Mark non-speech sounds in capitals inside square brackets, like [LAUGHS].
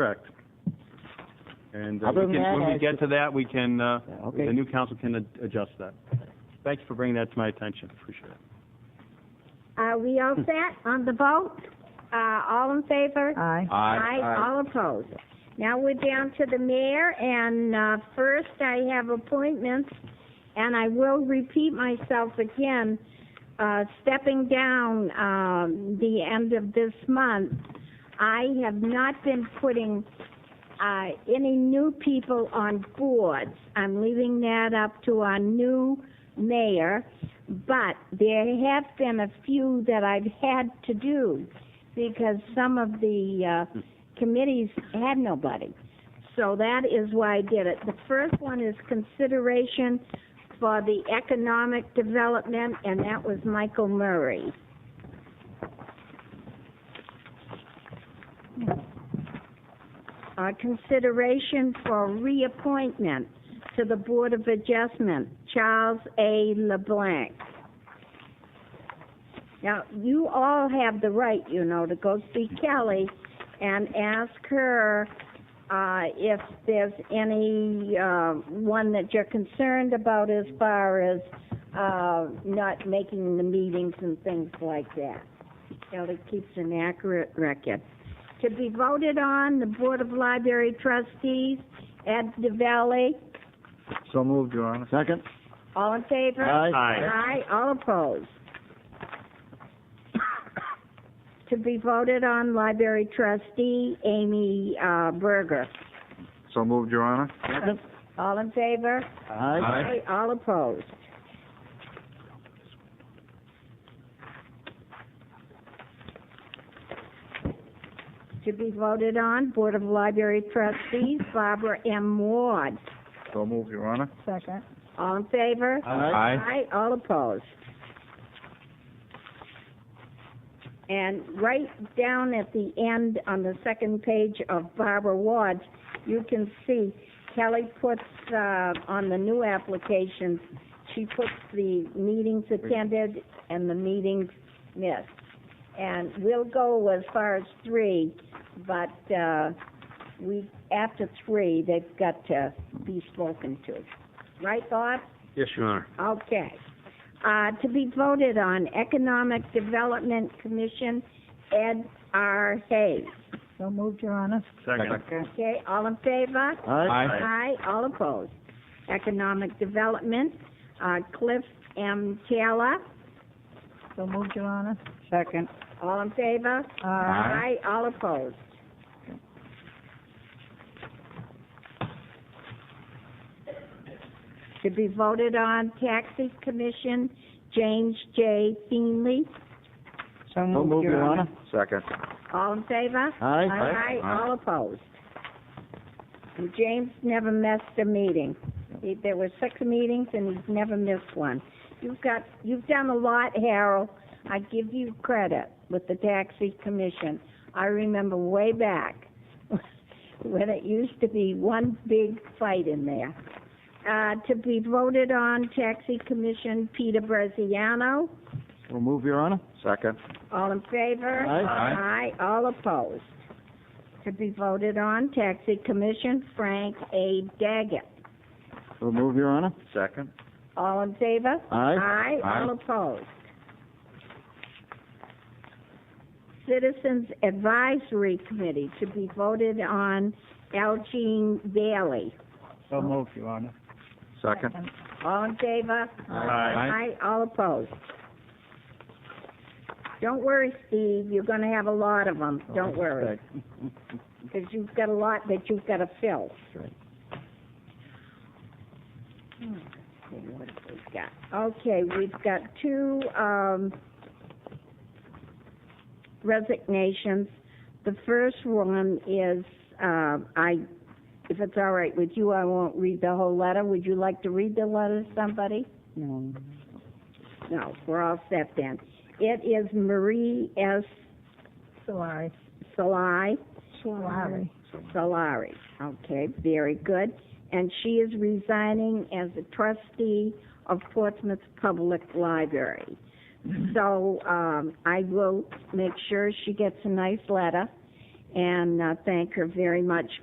Correct. And uh, Other we can- than that, when I- we get to that, we can, uh, Yeah, okay. the new council can ad- adjust that. Thanks for bringing that to my attention, appreciate it. Are Uh, we all set on the vote? Uh, all in favor? Aye. All opposed. Now we're down to the mayor, and, uh, first I have appointments, and I will repeat myself again, uh, stepping down, um, the end of this month. I have not been putting, uh, any new people on boards. I'm leaving that up to our new mayor, but there have been a few that I've had to do because some of the, uh, committees had nobody. So that is why I did it. The first one is consideration for the economic development, and that was Michael Murray. Uh, consideration for reappointment to the Board of Adjustment, Charles A. LeBlanc. Now, you all have the right, you know, to go see Kelly and ask her, uh, if there's any, uh, one that you're concerned about as far as, uh, not making the meetings and things like that. Kelly keeps an accurate record. To be voted on, the Board of Library Trustees, Ed DeValley, So moved, Your Honor. Second? all in favor? Aye, all opposed. To be voted on, library trustee Amy uh, Berger. So moved, Your Honor. Second? All in favor? Aye. All opposed. To be voted on, Board of Library Trustees Barbara M. Ward. So moved, Your Honor. Second. All in favor? Aye. Aye, all opposed. And right down at the end, on the second page of Barbara Ward's, you can see Kelly puts, uh, on the new applications, she puts the meetings attended and the meetings missed. And we'll go as far as three, but, uh, we, after three, they've got to be spoken to. Right, Bob? Yes, Your Honor. Okay. Uh, to be voted on, Economic Development Commission, Ed R. Hayes. So moved, Your Honor. Second. Okay, all in favor? Aye. Aye, all opposed. Economic Development, uh, Cliff M. Taylor, So moved, Your Honor. Uh, Second. all in favor? Aye. Aye, all opposed. To be voted on, Taxi Commission, James J. Feenley, So So moved, Your Honor. Second. all in favor? Aye, all opposed. And James never missed a meeting. He- There were six meetings, and he's never missed one. You've got, you've done a lot, Harold. I give you credit with the taxi commission. I remember way back [LAUGHS] when it used to be one big fight in there. Uh, to be voted on, taxi commission, Peter Braziano. So moved, Your Honor. Second. All in favor? Aye. Aye. all opposed. To be voted on, Taxi Commission, Frank A. Daggett. So moved, Your Honor. Second. All in favor? Aye. Aye, Aye. all opposed. Citizens Advisory Committee, to be voted on, Elgene Bailey. So moved, Your Honor. Second. All in favor? Aye. Aye, all opposed. Don't worry, Steve, you're gonna have a lot of them, don't worry. because you've got a lot that you've got to fill. That's right. Hmm, let's see what we've got. Okay, we've got two, um, resignations. The first one is, um, I, if it's all right with you, I won't read the whole letter. Would you like to read the letter, somebody? No. Mm. No, we're all set then. It is Marie S. Solari. Salai. Solari. Solari. Okay, very good. And she is resigning as a trustee of Portsmouth Public Library. So, um, I will make sure she gets a nice letter, and uh, thank her very much